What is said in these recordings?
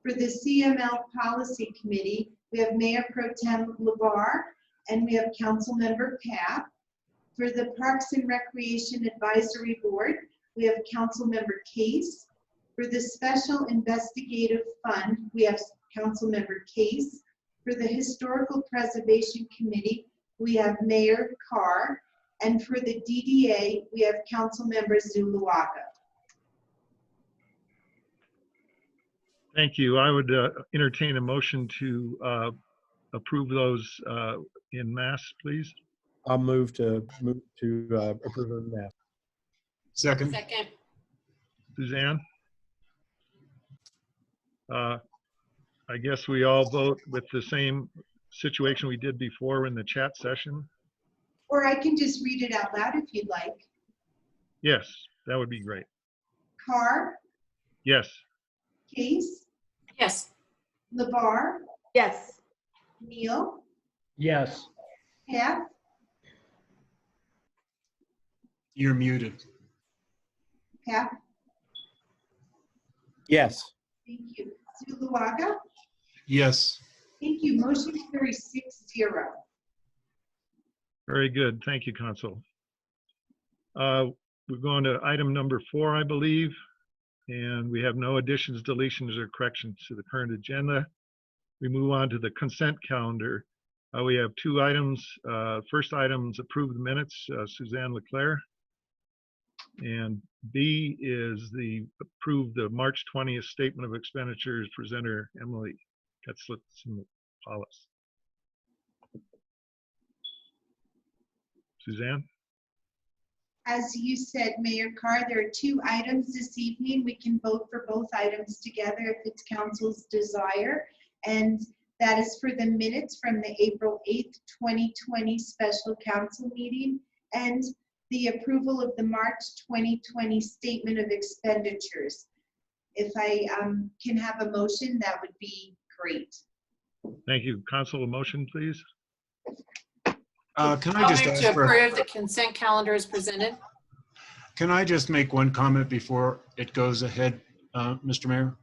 For the CML Policy Committee, we have Mayor Pro Tem LeBar, and we have Councilmember Cap. For the Parks and Recreation Advisory Board, we have Councilmember Case. For the Special Investigative Fund, we have Councilmember Case. For the Historical Preservation Committee, we have Mayor Carr. And for the DDA, we have Councilmember Zuluaga. Thank you. I would uh, entertain a motion to uh, approve those uh, in mass, please. I'll move to, move to uh, approve of that. Second, Second, Suzanne? Uh, I guess we all vote with the same situation we did before in the chat session. Or I can just read it out loud if you'd like. Yes, that would be great. Carr, Yes, Case, yes, Labar, Yes. Neal, yes, Pat, you're muted. Pat, Yes. thank you. Zuluaga, Yes, thank you. Motion carries six zero. very good. Thank you, Council. Uh, We're going to item number four, I believe. And we have no additions, deletions, or corrections to the current agenda. We move on to the consent calendar. Uh, We have two items. Uh, First item's approved minutes, uh, Suzanne Leclerc. And B is the approved, the March 20th Statement of Expenditures presenter Emily Katzlitz-Paulus. Suzanne? As you said, Mayor Carr, there are two items this evening. We can vote for both items together if it's council's desire. And that is for the minutes from the April 8th, 2020 special council meeting and the approval of the March 2020 statement of expenditures. If I um, can have a motion, that would be great. Thank you. Council, a motion, please? Uh, can I I'll just move to ask for, approve the consent calendar as presented. can I just make one comment before it goes ahead, uh, Mr. Mayor?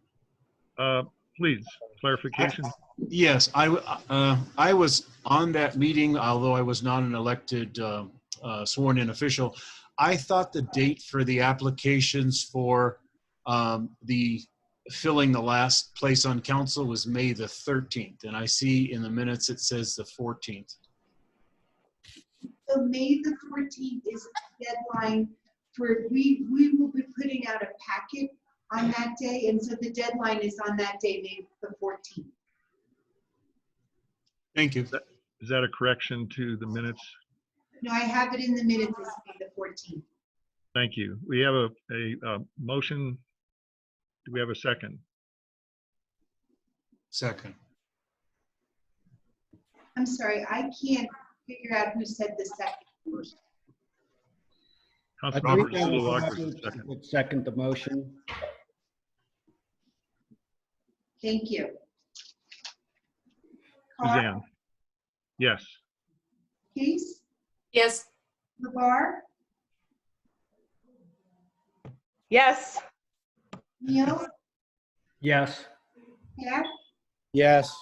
Uh, Please, clarification. Yes, I, w- uh, I was on that meeting, although I was not an elected uh, uh, sworn-in official. I thought the date for the applications for um, the filling the last place on council was May the 13th, and I see in the minutes it says the 14th. So May the fourteenth is the deadline for, we, we will be putting out a packet on that day, and so the deadline is on that day, May the fourteenth. Thank you. Is that a correction to the minutes? No, I have it in the minutes, it's May the fourteenth. Thank you. We have a, a uh, motion. Do we have a second? Second. I'm sorry, I can't figure out who said the second. I Councilmember believe that Zuluaga was was the second. would second the motion. Thank you. Carr, Suzanne? Yes, Case, Yes, Labar, Yes. Neal, Yes, Pat, Yes.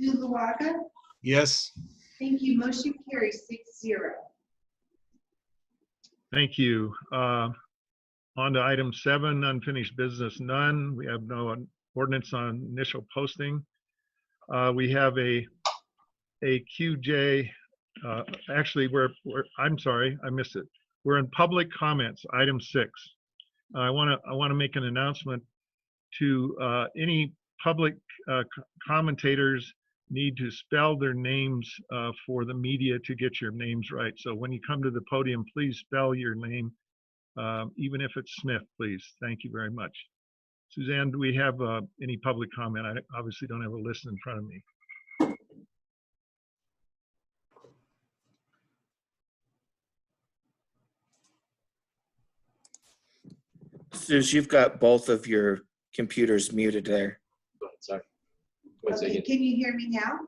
Zuluaga. Yes. Thank you, motion carries six zero. thank you. Uh, On to item seven, unfinished business, none. We have no ordinance on initial posting. Uh, We have a, a QJ, uh, actually, we're, we're, I'm sorry, I missed it. We're in public comments, item six. I want to, I want to make an announcement to uh, any public uh, c- commentators need to spell their names uh, for the media to get your names right. So when you come to the podium, please spell your name, um, even if it's Smith, please. Thank you very much. Suzanne, do we have uh, any public comment? I obviously don't have a list in front of me. Suze, you've got both of your computers muted there. Sorry. One Okay, second. can you hear me now?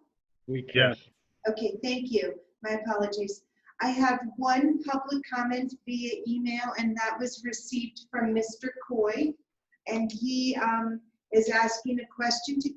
we can. Yes, Okay, thank you. My apologies. I have one public comment via email, and that was received from Mr. Coy. And he um, is asking a question to